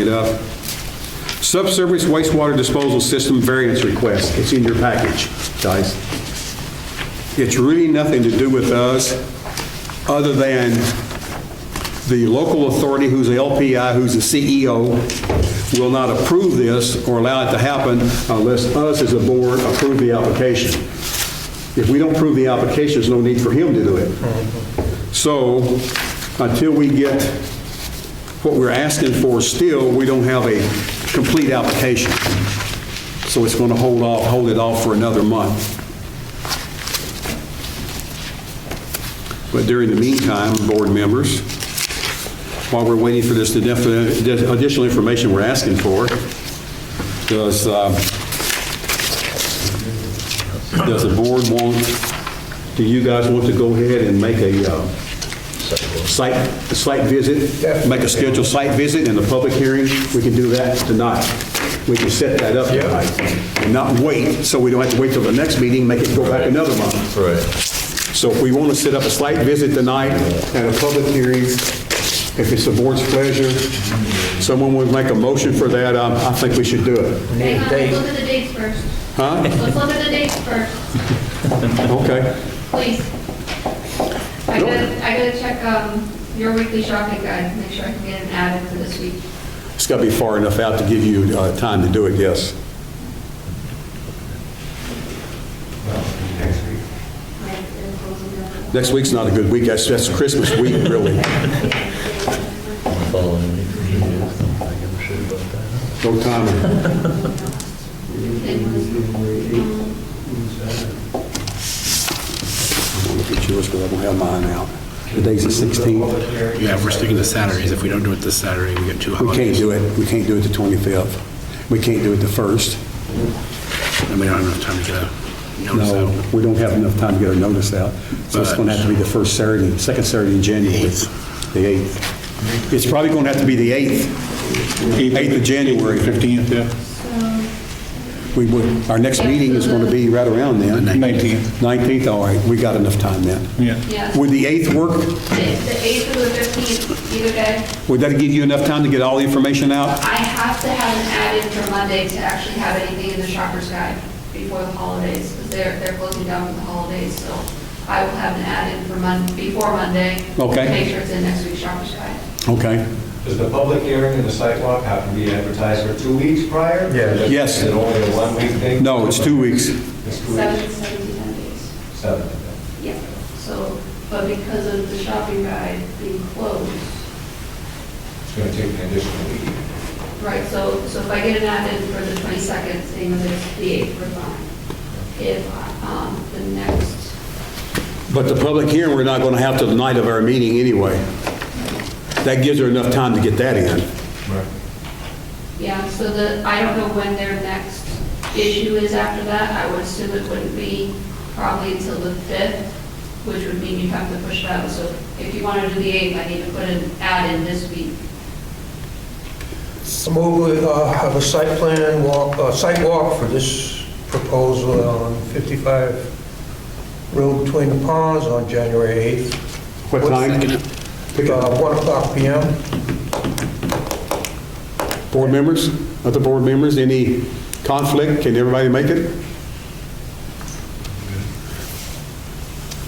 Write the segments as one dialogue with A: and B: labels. A: It up. Subsurface wastewater disposal system variance request. It's in your package, guys. It's really nothing to do with us, other than the local authority, who's the LPI, who's the CEO, will not approve this or allow it to happen unless us as a board approve the application. If we don't approve the application, there's no need for him to do it. So until we get what we're asking for still, we don't have a complete application. So it's going to hold off, hold it off for another month. But during the meantime, board members, while we're waiting for this defi- additional information we're asking for, does, uh, does the board want, do you guys want to go ahead and make a uh, site, site visit? Make a scheduled site visit and a public hearing? We can do that tonight. We can set that up tonight and not wait, so we don't have to wait till the next meeting, make it go back another month.
B: Right.
A: So if we want to set up a site visit tonight and a public hearing, if it's the board's pleasure, someone would make a motion for that, um, I think we should do it.
C: Hang on, let's look at the dates first.
A: Huh?
C: Let's look at the dates first,
A: Okay.
C: please. I gotta, I gotta check, um, your weekly shopping guide, make sure I can get an add-in for this week.
A: It's got to be far enough out to give you uh, time to do it, yes. Next week's not a good week, that's, that's Christmas week, really.
B: Following me for years. I give a shit about that.
A: No time. I'll look at yours, but I don't have mine out. Today's the 16th.
D: Yeah, we're sticking to Saturdays. If we don't do it this Saturday, we get two
A: We can't
D: holidays.
A: do it, we can't do it the 25th. We can't do it the 1st.
D: And we don't have enough time to get a notice
A: No,
D: out.
A: we don't have enough time to get our notice out. So it's going to have to be the first Saturday, second Saturday in January. The 8th. It's probably going to have to be the 8th. 8th of January. 15th, yeah. We would, our next meeting is going to be right around then.
E: 19th.
A: 19th, all right, we got enough time then.
E: Yeah.
C: Yeah,
A: Would
C: the
A: the 8th work?
C: the eighth or the fifteenth, either day.
A: Would that give you enough time to get all the information out?
C: I have to have an add-in for Monday to actually have anything in the shopper's guide before the holidays, because they're, they're closing down for the holidays, so I will have an add-in for Mon, before Monday.
A: Okay.
C: Make sure it's in next week's shopper's guide.
A: Okay.
F: Does the public hearing and the sidewalk have to be advertised for two weeks prior?
B: Yeah.
A: Yes.
F: Is it only a one-week thing?
A: No, it's two weeks.
F: It's two weeks,
C: Seven, seventeen, ten days.
F: seven.
C: Yeah, so, but because of the shopping guide being closed,
F: It's going to take an additional week.
C: right, so, so if I get an add-in for the 22nd, same as it's the 8th, we're fine. If, um, the next,
A: But the public hearing, we're not going to have till the night of our meeting anyway. That gives her enough time to get that in.
C: yeah, so the, I don't know when their next issue is after that. I would assume it wouldn't be probably until the 5th, which would mean you'd have to push it out. So if you want to do the 8th, I need to put an add-in this week.
G: I Move we uh, have a site plan walk, uh site walk for this proposal on 55 Road Between the Ponds on January 8th.
A: What time?
G: Uh, 1 o'clock PM.
A: Board members, other board members, any conflict? Can everybody make it?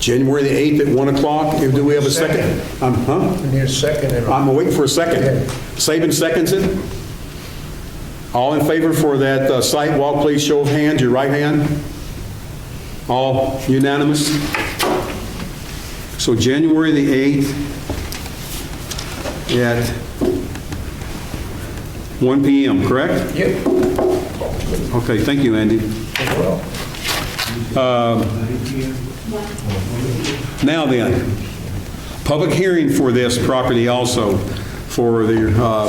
A: January the 8th at 1 o'clock, If- do we have a second? Um, Huh?
G: We need a second. and-
A: I'm waiting for a second. Saban seconds it? All in favor for that uh, site walk, please show of hands, your right hand. All unanimous? So January the 8th at 1 PM, correct?
G: Yep,
A: Okay, thank you, Andy. Uh,
G: well,
A: Now then, public hearing for this property also, for the uh,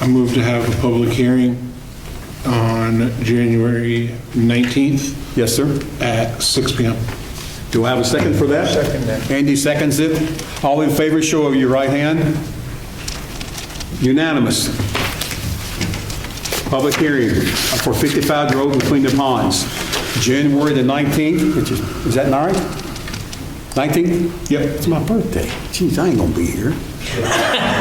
E: I move to have a public hearing on January 19th
A: Yes, sir.
E: at 6 PM.
A: Do I have a second for that?
G: Second that.
A: Andy seconds it. All in favor, show of your right hand. Unanimous. Public hearing for 55 Road Between the Ponds, January the 19th, which is, is that all right? 19th? Yep. It's my birthday. Geez, I ain't gonna be here.